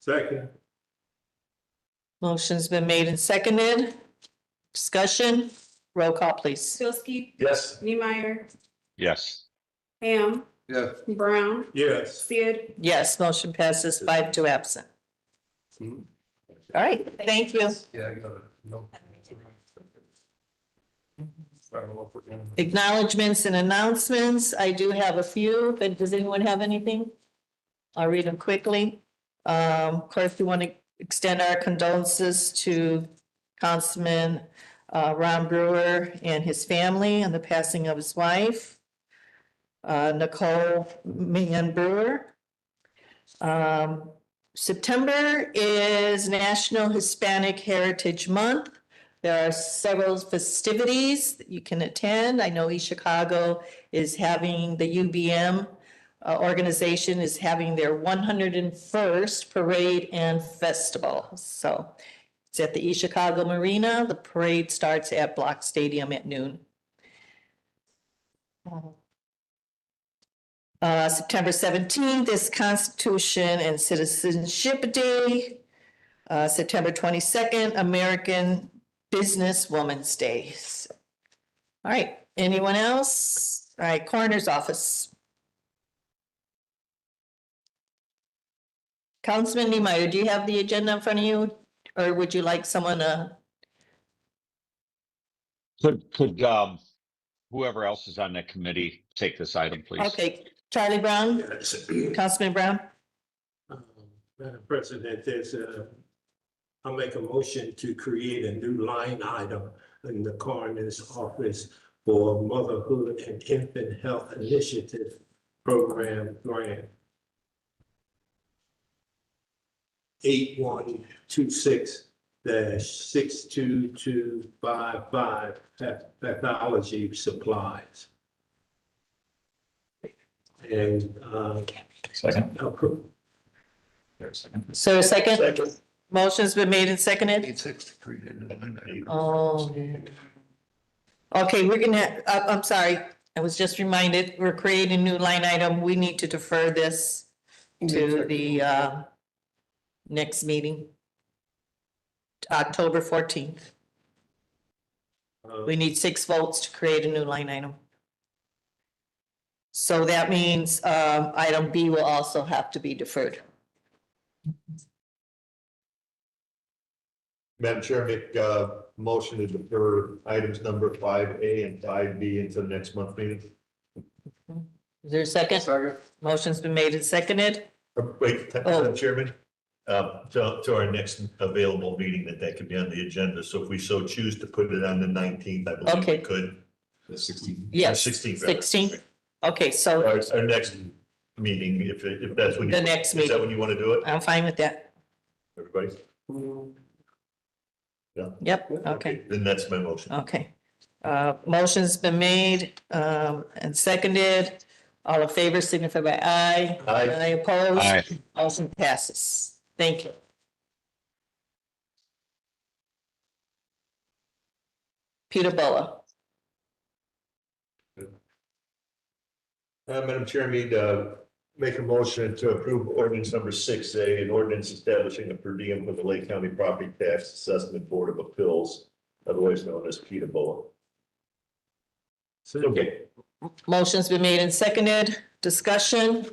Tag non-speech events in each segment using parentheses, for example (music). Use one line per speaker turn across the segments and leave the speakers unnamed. Second.
Motion's been made and seconded. Discussion, roll call please.
Bilski,
Yes.
Neemeyer,
Yes,
Ham,
Yes.
Brown,
Yes.
Sid.
Yes, motion passes five to absent.
Mhm.
All right, thank you.
Yeah, I got it. No. I don't know if we're gonna-
Acknowledgements and announcements. I do have a few, but does anyone have anything? I'll read them quickly. Um, of course, we want to extend our condolences to Councilman uh, Ron Brewer and his family and the passing of his wife, uh, Nicole Mann Brewer. Um, September is National Hispanic Heritage Month. There are several festivities that you can attend. I know East Chicago is having, the UBM uh, organization is having their one hundred and first parade and festival. So it's at the East Chicago Marina. The parade starts at Block Stadium at noon. Uh, September seventeenth is Constitution and Citizenship Day. Uh, September twenty-second, American Business Woman's Day. All right, anyone else? All right, Coroner's Office. Councilman Niemeyer, do you have the agenda in front of you, or would you like someone to?
could, could, um, whoever else is on that committee take this item, please?
Okay, Charlie Brown,
Yes. (clears throat)
Councilman Brown,
Um, Madam President, there's a, I'll make a motion to create a new line item in the coroner's office for motherhood and infant health initiative program grant. Eight one two six dash six two two five five, technology supplies. And, uh,
Second,
appro-
there's a second.
so a second, motion's been made and seconded.
sixty-three.
Oh. Okay, we're gonna, I, I'm sorry, I was just reminded, we're creating a new line item. We need to defer this to the, uh, next meeting. October fourteenth.
Uh,
We need six votes to create a new line item. So that means, um, item B will also have to be deferred.
Madam Chair, make uh motion to defer items number five A and five B until next month meeting.
Is there a second? Motion's been made and seconded.
Or Uh, Wait,
Oh.
Madam Chairman, uh, to, to our next available meeting that that could be on the agenda. So if we so choose to put it on the nineteenth, I believe
Okay.
we could.
The sixteen.
Yes,
Sixteenth.
sixteen. Okay, so
Our, our next meeting, if, it- if that's when. you-
the next
Is that
meeting,
when you want to do it,
I'm fine with that.
everybody?
Yep, okay.
Then that's my motion.
Okay, uh, motion's been made, um, and seconded. All in favor, signify by aye.
Aye.
opposed,
Aye,
motion passes. Thank you. Peter Bola,
Uh, Madam Chair, I need uh make a motion to approve ordinance number six A, an ordinance establishing a per diem for the Lake County Property Tax Assessment Board of Appeals, otherwise known as PETA. Okay,
motion's been made and seconded, discussion.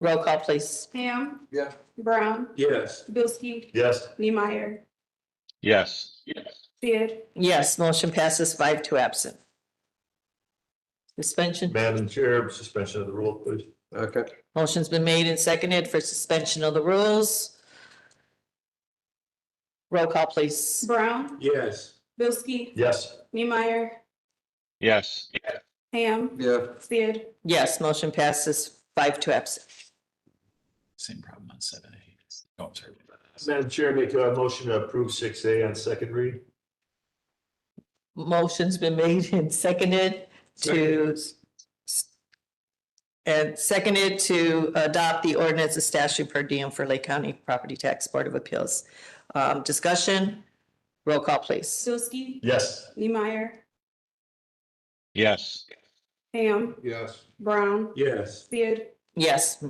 Roll call, please.
Ham.
Yeah.
Brown,
Yes.
Bilski,
yes,
Neemeyer,
yes,
Sid.
Yes, motion passes five to absent. Suspension,
Madam Chair, suspension of the rule, please.
Okay.
motion's been made and seconded for suspension of the rules. Roll call, please.
Brown,
Yes.
Bilski,
Yes,
Neemeyer,
yes,
Ham,
Yeah.
Sid.
Yes, motion passes five to absent.
Same problem on seven A. Oh, I'm sorry.
Madam Chair, make a motion to approve six A on second read.
Motion's been made and seconded to and seconded to adopt the ordinance of statute per diem for Lake County Property Tax Board of Appeals. Um, discussion, roll call, please.
Bilski,
Yes.
Neemeyer,
yes.
Ham,
Yes.
Brown,
Yes.
Sid.
Yes,